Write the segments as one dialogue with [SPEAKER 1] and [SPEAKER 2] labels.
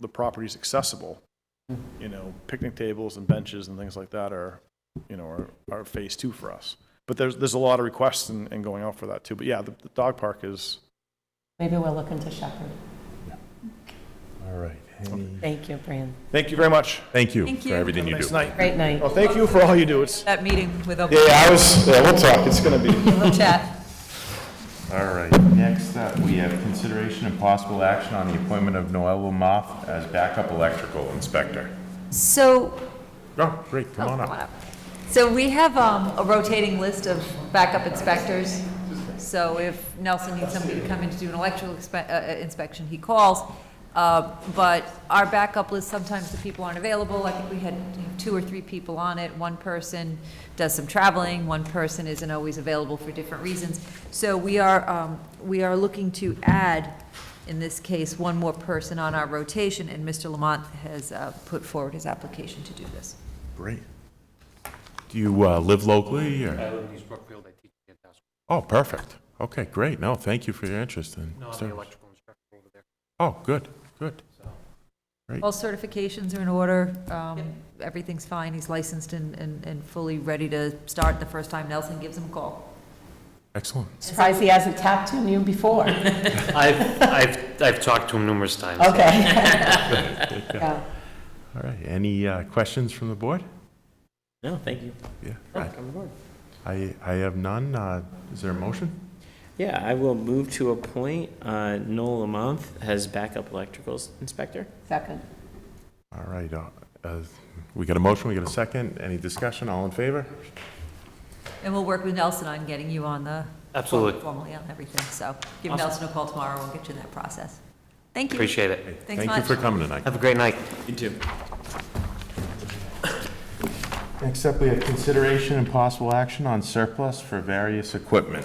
[SPEAKER 1] the property's accessible. You know, picnic tables and benches and things like that are, you know, are, are phase two for us. But there's, there's a lot of requests and, and going out for that too. But yeah, the, the dog park is,
[SPEAKER 2] Maybe we'll look into Shepherd.
[SPEAKER 3] All right. Any-
[SPEAKER 2] Thank you, Brian.
[SPEAKER 1] thank you very much.
[SPEAKER 3] Thank you
[SPEAKER 4] Thank
[SPEAKER 3] for
[SPEAKER 4] you.
[SPEAKER 3] everything you do.
[SPEAKER 1] Nice night.
[SPEAKER 2] Great night.
[SPEAKER 1] Well, thank you for all you do. It's,
[SPEAKER 4] That meeting with
[SPEAKER 1] yeah,
[SPEAKER 4] open
[SPEAKER 1] yeah, I was, yeah, we'll talk. It's gonna be.
[SPEAKER 4] chat.
[SPEAKER 5] All right, next up, we have consideration and possible action on the appointment of Noel Lamoff as backup electrical inspector.
[SPEAKER 4] So,
[SPEAKER 3] Oh, great, come on up.
[SPEAKER 4] so we have um, a rotating list of backup inspectors. So if Nelson needs somebody to come in to do an electrical expe- uh, uh, inspection, he calls. Uh, But our backup list, sometimes the people aren't available. I think we had two or three people on it. One person does some traveling, one person isn't always available for different reasons. So we are, um, we are looking to add in this case, one more person on our rotation, and Mr. Lamont has uh, put forward his application to do this.
[SPEAKER 3] Great. Do you uh, live locally or?
[SPEAKER 6] I live in East Brookfield, I teach at Dow's,
[SPEAKER 3] Oh, perfect. Okay, great. No, thank you for your interest in.
[SPEAKER 6] no, I'm
[SPEAKER 3] service.
[SPEAKER 6] the electrical instructor over there,
[SPEAKER 3] Oh, good, good.
[SPEAKER 6] so.
[SPEAKER 4] All certifications are in order, um, everything's fine, he's licensed and, and and fully ready to start the first time Nelson gives him a call.
[SPEAKER 3] Excellent.
[SPEAKER 2] Surprised he hasn't tapped on you before.
[SPEAKER 6] I've, I've, I've talked to him numerous times.
[SPEAKER 2] Okay. Yeah.
[SPEAKER 3] All right, any uh, questions from the board?
[SPEAKER 7] No, thank you.
[SPEAKER 3] Yeah.
[SPEAKER 7] Oh,
[SPEAKER 3] right.
[SPEAKER 7] come aboard.
[SPEAKER 3] I, I have none. Uh, Is there a motion?
[SPEAKER 7] Yeah, I will move to appoint uh, Noel Lamont as backup electrical s- inspector.
[SPEAKER 2] Second.
[SPEAKER 3] All right, uh, uh, we got a motion, we got a second. Any discussion? All in favor?
[SPEAKER 4] And we'll work with Nelson on getting you on the.
[SPEAKER 6] Absolutely.
[SPEAKER 4] Formally on everything, so give
[SPEAKER 6] Awesome.
[SPEAKER 4] Nelson a call tomorrow, we'll get you in that process. Thank you.
[SPEAKER 6] Appreciate it.
[SPEAKER 4] Thanks
[SPEAKER 3] Thank you
[SPEAKER 4] much.
[SPEAKER 3] for coming tonight.
[SPEAKER 6] Have a great night.
[SPEAKER 7] You too.
[SPEAKER 5] Next up, we have consideration and possible action on surplus for various equipment.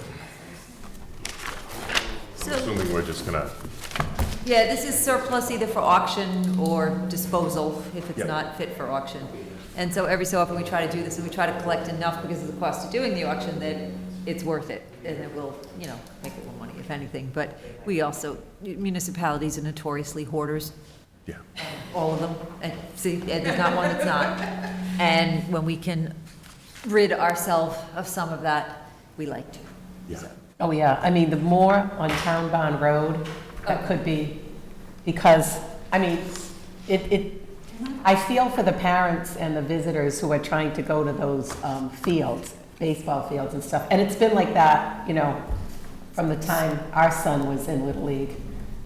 [SPEAKER 4] So-
[SPEAKER 3] Assuming we're just gonna,
[SPEAKER 4] Yeah, this is surplus either for auction or disposal, if
[SPEAKER 3] Yeah.
[SPEAKER 4] it's not fit for auction. And so every so often, we try to do this, and we try to collect enough because of the cost of doing the auction, that it's worth it, and it will, you know, make a little money, if anything. But we also, municipalities are notoriously hoarders, Um,
[SPEAKER 3] yeah.
[SPEAKER 4] all of them, and see, and there's not one that's not. And when we can rid ourselves of some of that, we like to.
[SPEAKER 2] Oh, yeah, I mean, the more on Town Bond Road, that could be, because, I mean, it, it, I feel for the parents and the visitors who are trying to go to those um, fields, baseball fields and stuff, and it's been like that, you know, from the time our son was in Little League.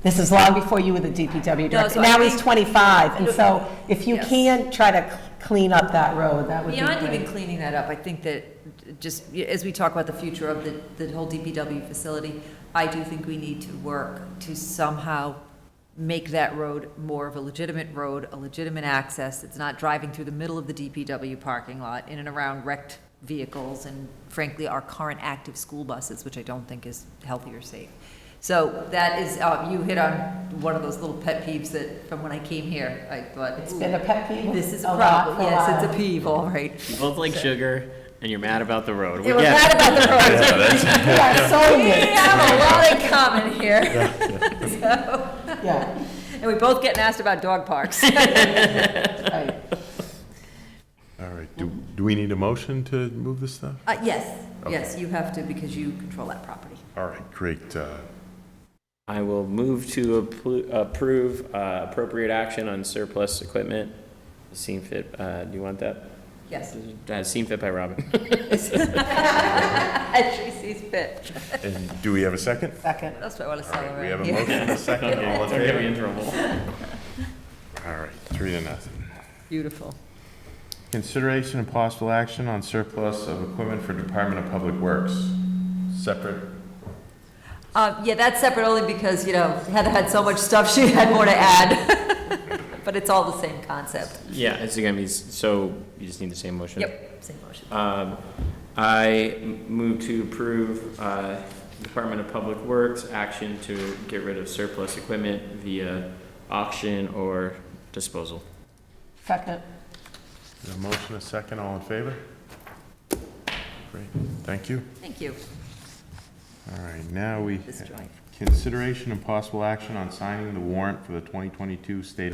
[SPEAKER 2] This is long before you were the DPW director,
[SPEAKER 4] so I
[SPEAKER 2] now he's
[SPEAKER 4] think-
[SPEAKER 2] 25, and so if you
[SPEAKER 4] Yes.
[SPEAKER 2] can try to cl- clean up that road, that would be
[SPEAKER 4] Beyond even
[SPEAKER 2] great.
[SPEAKER 4] cleaning that up, I think that just, as we talk about the future of the, the whole DPW facility, I do think we need to work to somehow make that road more of a legitimate road, a legitimate access. It's not driving through the middle of the DPW parking lot in and around wrecked vehicles and frankly, our current active school buses, which I don't think is healthy or safe. So that is, uh, you hit on one of those little pet peeves that, from when I came here, I thought,
[SPEAKER 2] It's been a pet peeve.
[SPEAKER 4] this is a
[SPEAKER 2] lot
[SPEAKER 4] problem.
[SPEAKER 2] for
[SPEAKER 4] Yes,
[SPEAKER 2] while.
[SPEAKER 4] it's a peeve, all right.
[SPEAKER 7] You both like sugar, and you're mad about the road.
[SPEAKER 4] They
[SPEAKER 7] We
[SPEAKER 4] were
[SPEAKER 7] get
[SPEAKER 4] mad
[SPEAKER 7] it.
[SPEAKER 4] about the road.
[SPEAKER 2] We are so
[SPEAKER 4] We
[SPEAKER 2] mixed.
[SPEAKER 4] have a lot in common here.
[SPEAKER 2] Yeah,
[SPEAKER 4] And we both get asked about dog parks.
[SPEAKER 2] right.
[SPEAKER 3] All right, do, do we need a motion to move this stuff?
[SPEAKER 4] Uh, yes, yes, you have to because you control that property.
[SPEAKER 3] All right, great. uh,
[SPEAKER 7] I will move to appro- approve uh, appropriate action on surplus equipment. Seen fit, uh, do you want that?
[SPEAKER 4] Yes,
[SPEAKER 7] Uh, Seen fit by Robin.
[SPEAKER 4] as she sees fit.
[SPEAKER 3] And do we have a second?
[SPEAKER 2] Second.
[SPEAKER 4] That's what I want to
[SPEAKER 3] All right, we
[SPEAKER 4] celebrate
[SPEAKER 3] have a
[SPEAKER 4] here.
[SPEAKER 3] motion and a second. All in
[SPEAKER 7] Don't get me in
[SPEAKER 3] favor?
[SPEAKER 7] trouble.
[SPEAKER 3] All right, three to nothing.
[SPEAKER 4] Beautiful.
[SPEAKER 5] Consideration and possible action on surplus of equipment for Department of Public Works. Separate
[SPEAKER 4] Uh, yeah, that's separate only because, you know, Heather had so much stuff, she had more to add. But it's all the same concept.
[SPEAKER 7] Yeah, it's gonna be, s- so you just need the same motion?
[SPEAKER 4] Yep, same motion.
[SPEAKER 7] Um, I m- move to approve uh, Department of Public Works action to get rid of surplus equipment via auction or disposal.
[SPEAKER 2] Second.
[SPEAKER 3] A motion, a second, all in favor? Great, thank you.
[SPEAKER 4] Thank you.
[SPEAKER 5] All right, now we,
[SPEAKER 4] This drive.
[SPEAKER 5] consideration and possible action on signing the warrant for the 2022 state